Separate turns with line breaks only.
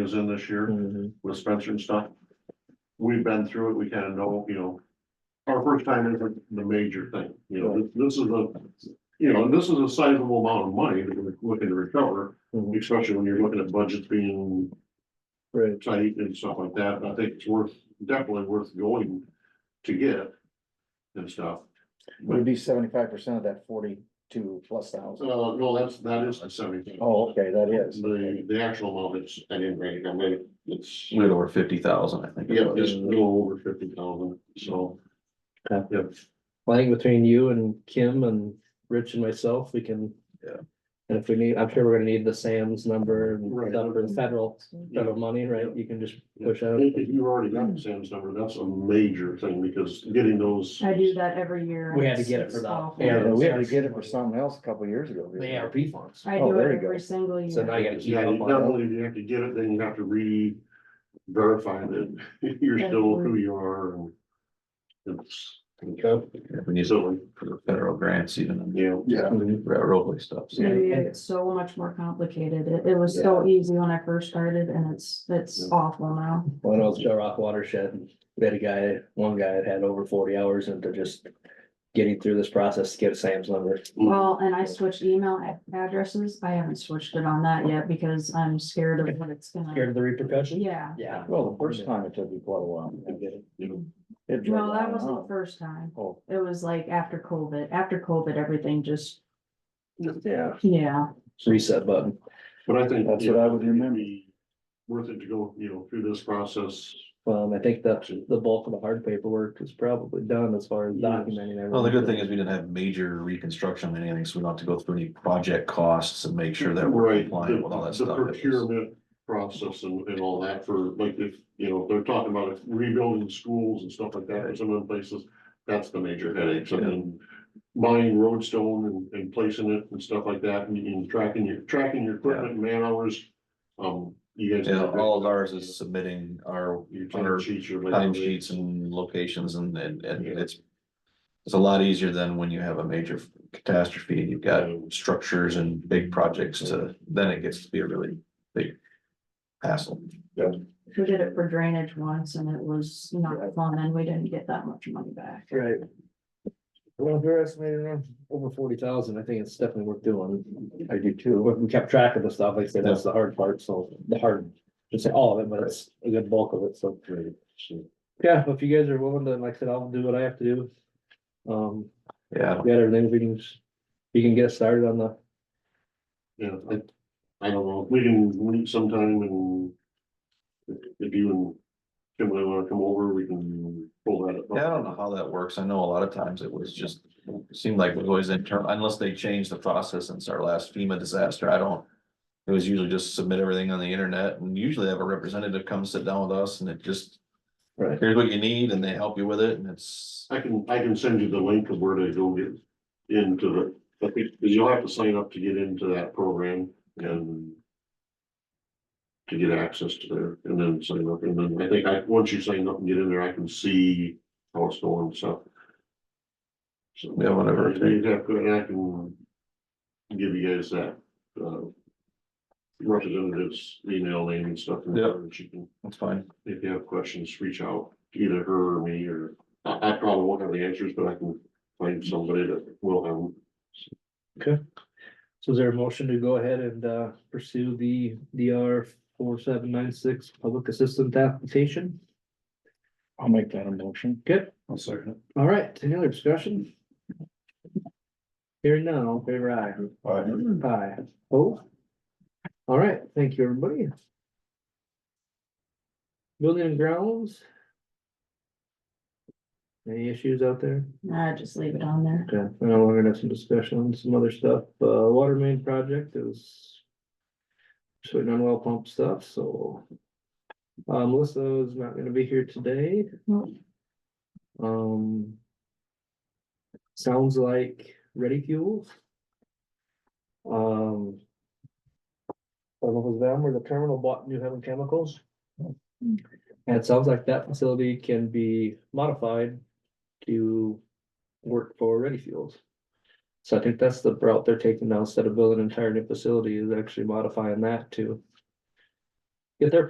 is in this year
Mm-hmm,
with Spencer and stuff. We've been through it, we kind of know, you know, our first time is the major thing, you know, this- this is a, you know, this is a sizable amount of money that we're looking to recover,
Mhm.
especially when you're looking at budgets being
Right,
tight and stuff like that, I think it's worth, definitely worth going to get and stuff.
would be seventy-five percent of that forty-two plus thousand.
Uh, no, that's, that is the seventy.
Oh, okay, that is.
The, the actual amount is, I didn't write it, I mean, it's,
little over fifty thousand, I think. it
yeah,
was.
it's a little over fifty thousand, so.
Yeah.
Yeah,
I think between you and Kim and Rich and myself, we can.
Yeah.
And if we need, I'm sure we're gonna need the Sam's number and
Right.
stuff for the federal, federal money, right? You can just push out.
If if you already got the Sam's number, that's a major thing, because getting those.
I do that every year.
We had to get it for
It's
that.
awful.
Yeah, we had to get it for something else a couple of years ago.
The ARP funds.
I
Oh,
do
there you
it
go.
every single
So now
year.
you gotta keep
Yeah,
up
you
on
not
it.
only do you have to get it, then you have to re verify that you're still who you are and. It's.
Yeah, We need it
So,
for the federal grants even, and
yeah.
Yeah.
railroad stuff. so.
Yeah.
Maybe it's so much more complicated. It, it was so easy when I first started and it's, it's awful now.
When I was Joe Rock watershed, and we had a guy, one guy that had over forty hours into just. Getting through this process to get Sam's number.
Well, and I switched email a- addresses. I haven't switched it on that yet because I'm scared of what it's
Scared
gonna.
of the repercussions?
Yeah,
Yeah.
Well, the first time it took me quite a while to get it. It dragged
well, that
on and
wasn't
on.
the first time.
Oh,
It was like after COVID, after COVID, everything just,
yeah.
yeah,
Reset button.
But I think.
That's what I would remember.
it'd be Worth it to go, you know, through this process.
Um, I think that's the bulk of the hard paperwork is probably done as far as
Yes.
documenting everything.
Well, the good thing is we didn't have major reconstruction or anything, so we don't have to go through any project costs and make sure that we're
Right,
compliant with all
the-
that
The
stuff. It was-
procurement process and, and all that for, like, if, you know, they're talking about rebuilding schools and stuff like that in some of the places. That's the major headache, so then buying roadstone and, and placing it and stuff like that, and, and tracking your, tracking your equipment, man hours. Um, you guys.
Yeah, all of ours is submitting our
Your
our
time sheets, your.
time
labor.
sheets and locations and, and, and
Yeah.
it's. It's a lot easier than when you have a major catastrophe and you've got structures and big projects to, then it gets to be a really big hassle.
we did it for drainage once and it was not fun and we didn't get that much money back.
Right. Well, if you're estimating around over forty thousand, I think it's definitely worth doing.
I do
We
too.
we kept track of the stuff, like I said, that's the hard part, so the hard, just say all of it, but it's a good bulk of it, so. Yeah, if you guys are willing to, like I said, I'll do what I have to do. Um,
Yeah,
we got everything, we can, just- you can get started on the,
Yeah, I, I don't know, we can meet sometime and. If if you and Kim really wanna come over, we can pull that up.
yeah, I don't know how that works. I know a lot of times it was just, it seemed like it was always internal, unless they changed the process since our last FEMA disaster, I don't. It was usually just submit everything on the internet and usually have a representative come sit down with us and it just.
Right.
Here's what you need and they help you with it and it's,
I can, I can send you the link of where to go get into the, I think, cause you'll have to sign up to get into that program and. To get access to there and then sign up, and then I think I, once you sign up and get in there, I can see how it's going, so. So.
yeah, whatever. it takes.
You'd have to, and I can give you guys that, uh. Representative's email name and stuff, and
Yep.
and she can,
That's fine.
if you have questions, reach out, to either her or me, or. I, I probably won't have the answers, but I can find somebody that will have, them.
so is there a motion to go ahead and, uh, pursue the DR four seven nine six public assistance application?
I'll make that a motion.
Good,
I'll second
all right, any other discussion? Here now, all in favor I. Aye. Oh. All right, thank you, everybody. Building and grounds. Any issues out there?
I just leave it on there.
Okay, I know we're gonna have some discussion on some other stuff, uh, water main project is. Just waiting on well pump stuff, so. Uh, Melissa is not gonna be here today.
Nope.
Um. Sounds like ready fuels. Um. I don't know if it was them or the terminal bought New Haven Chemicals. And it sounds like that facility can be modified to work for Ready Fuels. So I think that's the route they're taking now, instead of building an entire new facility, is actually modifying that to. Get their